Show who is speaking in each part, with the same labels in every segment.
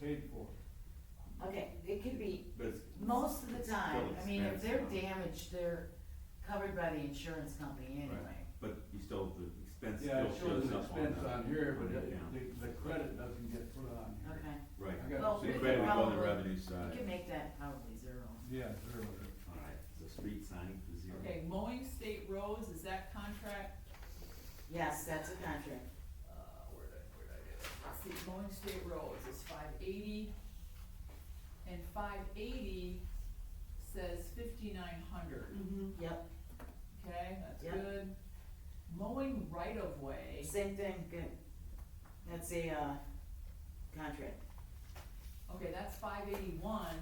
Speaker 1: paid for,
Speaker 2: Okay, it could be,
Speaker 1: but it's.
Speaker 2: most of the
Speaker 1: it's
Speaker 2: time,
Speaker 1: still
Speaker 2: I mean, if they're
Speaker 1: expensive.
Speaker 2: damaged, they're covered by the insurance company anyway.
Speaker 3: Right. But you still, the expense
Speaker 1: Yeah,
Speaker 3: still
Speaker 1: it shows
Speaker 3: shows
Speaker 1: an
Speaker 3: up on the.
Speaker 1: expense on here, but
Speaker 3: the
Speaker 1: it-
Speaker 3: account.
Speaker 1: the, the credit doesn't get put on here.
Speaker 2: Okay,
Speaker 3: Right,
Speaker 1: I got-
Speaker 2: Well,
Speaker 3: so
Speaker 2: we
Speaker 3: the
Speaker 2: could
Speaker 3: credit would go on the
Speaker 2: probably-
Speaker 3: revenue
Speaker 2: you
Speaker 3: side.
Speaker 2: can make that probably zero.
Speaker 1: Yeah, zero.
Speaker 3: Alright, so street signing is zero.
Speaker 4: Okay, mowing state roads, is that contract,
Speaker 2: Yes, that's a contract.
Speaker 4: uh, where did, I- where did I get it? Let's see, mowing state roads is five eighty. And five eighty says fifty-nine hundred,
Speaker 2: Mm-hmm. Yep,
Speaker 4: okay, that's
Speaker 2: Yep.
Speaker 4: good. Mowing right of way,
Speaker 2: same thing, good. That's a, uh, contract.
Speaker 4: okay, that's five eighty-one,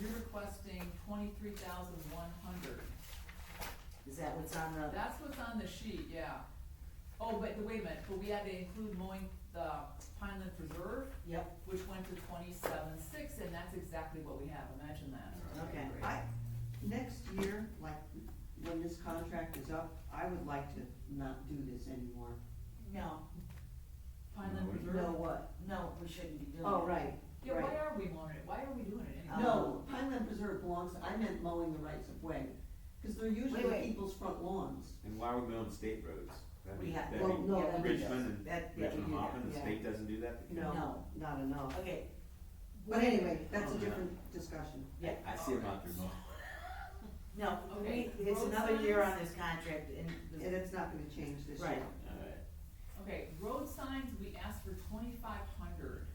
Speaker 4: you're requesting twenty-three thousand one hundred.
Speaker 2: Is that what's on the,
Speaker 4: That's what's on the sheet, yeah. Oh, but, wait a minute, but we had to include mowing the Pineland Preserve?
Speaker 2: yep,
Speaker 4: which went to twenty-seven six, and that's exactly what we have, imagine that.
Speaker 2: okay.
Speaker 5: I, next year, like, when this contract is up, I would like to not do this anymore.
Speaker 2: No,
Speaker 4: Pineland
Speaker 3: No, we-
Speaker 4: Reserve.
Speaker 5: Know what?
Speaker 2: no, we shouldn't be doing that.
Speaker 5: Oh, right,
Speaker 4: Yeah, why
Speaker 5: right.
Speaker 4: are we mowing it, why are we doing it anyway?
Speaker 5: No, Pineland Preserve belongs, I meant mowing the rights of way, cause they're usually
Speaker 2: wait.
Speaker 5: people's front lawns.
Speaker 3: And why are we on state roads? That
Speaker 2: We
Speaker 3: means,
Speaker 2: have-
Speaker 3: that
Speaker 5: well,
Speaker 3: means
Speaker 5: no, that means-
Speaker 3: Richmond and,
Speaker 2: that- yeah, we
Speaker 3: Richmond
Speaker 2: do that,
Speaker 3: Hoffman, the
Speaker 2: yeah.
Speaker 3: state doesn't do that? The county-
Speaker 5: No, not enough.
Speaker 2: Okay,
Speaker 5: But anyway, that's a
Speaker 3: Oh, yeah.
Speaker 5: different discussion.
Speaker 2: yeah,
Speaker 3: I see them out there mowing.
Speaker 2: no, we,
Speaker 4: Okay,
Speaker 2: it's
Speaker 4: road
Speaker 2: another year
Speaker 4: signs?
Speaker 2: on this contract and. the-
Speaker 5: And it's not gonna change this year.
Speaker 2: Right.
Speaker 3: Alright,
Speaker 4: Okay, road signs, we asked for twenty-five hundred.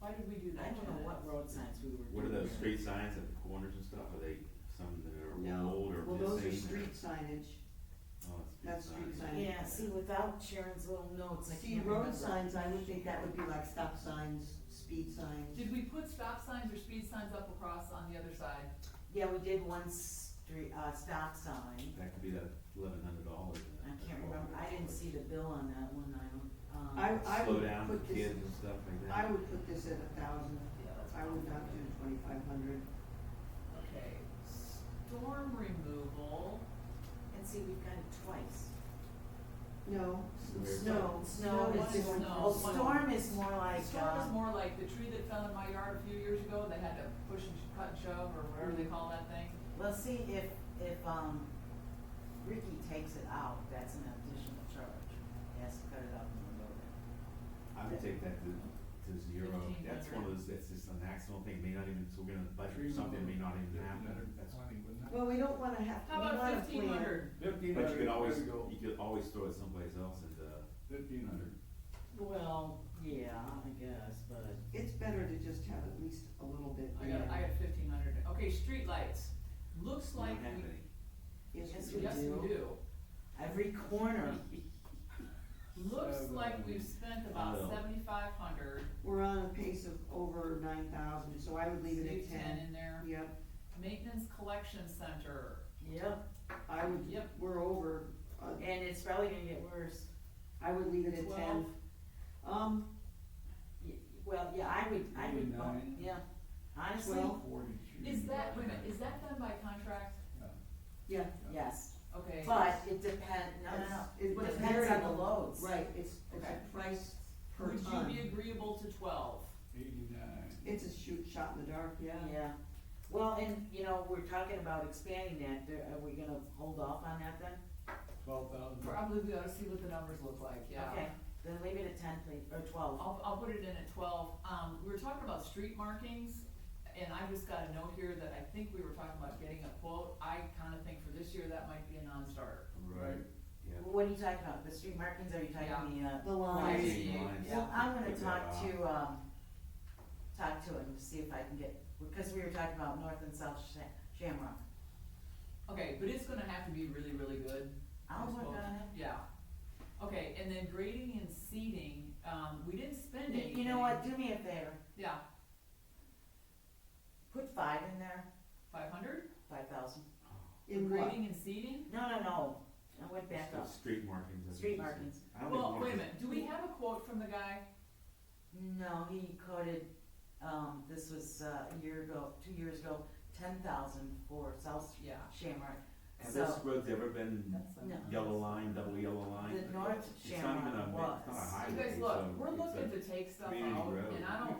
Speaker 4: Why did we do
Speaker 2: I
Speaker 4: that?
Speaker 2: don't know
Speaker 4: Janet?
Speaker 2: what road signs we were doing.
Speaker 3: what are those
Speaker 2: there.
Speaker 3: street signs at the corners and stuff? Are they some that are
Speaker 5: No.
Speaker 3: old or missing?
Speaker 5: Well, those are
Speaker 3: or-
Speaker 5: street signage.
Speaker 3: Oh, it's
Speaker 5: that's street
Speaker 3: signs.
Speaker 5: sign.
Speaker 2: Yeah, see, without Sharon's little notes, I
Speaker 5: See,
Speaker 2: can't remember.
Speaker 5: road signs, I would think that would be like stop signs, speed signs.
Speaker 4: Did we put stop signs or speed signs up across on the other side?
Speaker 2: Yeah, we did one street, uh, stop sign,
Speaker 3: That could be that eleven hundred dollars.
Speaker 2: I can't remember, I didn't see the bill on that one, I
Speaker 5: I,
Speaker 2: don't, um,
Speaker 5: I
Speaker 3: Slow
Speaker 5: would
Speaker 3: down for
Speaker 5: put this,
Speaker 3: kids and stuff like that.
Speaker 5: I would put this at a thousand.
Speaker 4: Yeah, that's
Speaker 5: I would not do twenty-five hundred.
Speaker 4: Okay, storm removal,
Speaker 2: and see, we've got it twice.
Speaker 5: No,
Speaker 3: Where's
Speaker 5: s- snow, Oh, snow
Speaker 4: Snow
Speaker 5: is
Speaker 4: is
Speaker 5: different.
Speaker 4: snow.
Speaker 2: Well, Oh, storm is more like,
Speaker 4: storm is
Speaker 2: uh,
Speaker 4: more like the tree that fell in my yard a few years ago, they had to push and sh- cut and shove, or whatever they call that thing.
Speaker 2: well, see, if, if, um, Ricky takes it out, that's an additional charge, he has to cut it out and load it.
Speaker 3: I would take that to, to zero, that's one of those, that's just an accidental thing, may not even, so we're gonna budget for something, may not even happen, that's.
Speaker 1: Twenty, wouldn't it?
Speaker 5: Well, we don't wanna have, we
Speaker 4: How about
Speaker 5: wanna
Speaker 4: fifteen
Speaker 5: plan.
Speaker 4: hundred?
Speaker 1: Fifteen
Speaker 3: But you
Speaker 1: hundred,
Speaker 3: could always,
Speaker 1: there we go,
Speaker 3: you could always throw it someplace else and, uh,
Speaker 1: fifteen hundred.
Speaker 2: Well, yeah, I guess, but.
Speaker 5: It's better to just have at least a little bit
Speaker 4: I got, I
Speaker 5: there.
Speaker 4: got fifteen hundred, okay, streetlights, looks
Speaker 3: we
Speaker 4: like
Speaker 3: don't have any.
Speaker 5: Yes,
Speaker 2: Yes,
Speaker 4: we,
Speaker 5: we
Speaker 4: yes,
Speaker 5: do.
Speaker 4: we do.
Speaker 2: Every corner,
Speaker 4: Looks
Speaker 1: Seven.
Speaker 4: like we've spent
Speaker 3: Auto.
Speaker 4: about seventy-five hundred,
Speaker 5: We're on a pace of over nine thousand, so I would leave it
Speaker 4: leave
Speaker 5: at
Speaker 4: ten
Speaker 5: ten.
Speaker 4: in there.
Speaker 5: Yep,
Speaker 4: Maintenance collection center,
Speaker 2: yep,
Speaker 5: I would,
Speaker 4: Yep.
Speaker 5: we're over, uh,
Speaker 2: and it's probably gonna get worse.
Speaker 5: I would leave it at ten.
Speaker 4: twelve,
Speaker 5: Um,
Speaker 2: Y- Well, yeah, I would, I would, bump-
Speaker 1: Nine.
Speaker 2: yeah, honestly,
Speaker 5: Twelve.
Speaker 1: Forty. should
Speaker 4: is
Speaker 1: be
Speaker 4: that,
Speaker 1: about
Speaker 4: wait a minute, is that done by contract?
Speaker 1: Yeah.
Speaker 5: yeah,
Speaker 2: yes,
Speaker 4: Okay.
Speaker 2: but it depend, no, no, no,
Speaker 5: It's-
Speaker 2: it
Speaker 5: it's
Speaker 2: depends on
Speaker 5: variable.
Speaker 2: the loads.
Speaker 5: right, it's, it's
Speaker 4: Okay.
Speaker 5: a price per
Speaker 4: Would you be
Speaker 5: ton.
Speaker 4: agreeable to twelve?
Speaker 1: Eighty-nine.
Speaker 5: It's a shoot shot in the dark, yeah.
Speaker 2: Yeah, well, and, you know, we're talking about expanding that, There- are we gonna hold off on that then?
Speaker 1: Twelve thousand.
Speaker 4: Probably we ought to see what the numbers look like, yeah. Oh.
Speaker 2: Okay, then leave it at ten, please, or twelve,
Speaker 4: I'll, I'll put it in at twelve. Um, we were talking about street markings, and I just got a note here that I think we were talking about getting a quote. I kinda think for this year, that might be a non-starter.
Speaker 1: Right.
Speaker 3: Yeah.
Speaker 2: what are you talking about, the street markings, are you talking the, uh?
Speaker 5: The lines.
Speaker 2: lines?
Speaker 4: Yeah.
Speaker 3: Lines, uh,
Speaker 2: Well, I'm gonna
Speaker 3: figure that
Speaker 2: talk
Speaker 3: out.
Speaker 2: to, um, talk to him, to see if I can get, because we were talking about north and south Sha- Shamrock.
Speaker 4: Okay, but it's gonna have to be really, really good.
Speaker 2: I'll
Speaker 4: I
Speaker 2: work
Speaker 4: suppose.
Speaker 2: on it.
Speaker 4: Yeah. Okay, and then grading and seeding, um, we didn't spend
Speaker 2: You-
Speaker 4: anything.
Speaker 2: You know what, do me a favor,
Speaker 4: Yeah,
Speaker 2: put five in there,
Speaker 4: five hundred?
Speaker 2: five thousand,
Speaker 5: In what?
Speaker 4: Grading and seeding?
Speaker 2: no, no, no, I went back
Speaker 3: So
Speaker 2: up,
Speaker 3: Street markings. I think
Speaker 2: street
Speaker 3: you said.
Speaker 2: markings,
Speaker 3: I don't
Speaker 4: Well,
Speaker 3: even
Speaker 4: wait a
Speaker 3: wanna-
Speaker 4: minute, do we have a quote from the guy?
Speaker 2: no, he quoted, um, this was, uh, a year ago, two years ago, ten thousand for south
Speaker 4: Yeah.
Speaker 2: Shamrock,
Speaker 3: Has
Speaker 2: so.
Speaker 3: this road's ever been
Speaker 4: that's-
Speaker 2: No.
Speaker 3: yellow line, double yellow line?
Speaker 2: The north
Speaker 3: It's not even a-
Speaker 2: Shamrock
Speaker 3: It's not a
Speaker 2: was.
Speaker 4: You
Speaker 3: highway,
Speaker 4: guys,
Speaker 3: so
Speaker 4: look, we're
Speaker 3: it's a-
Speaker 4: looking to take stuff
Speaker 3: community
Speaker 4: out,
Speaker 3: road.
Speaker 4: and I don't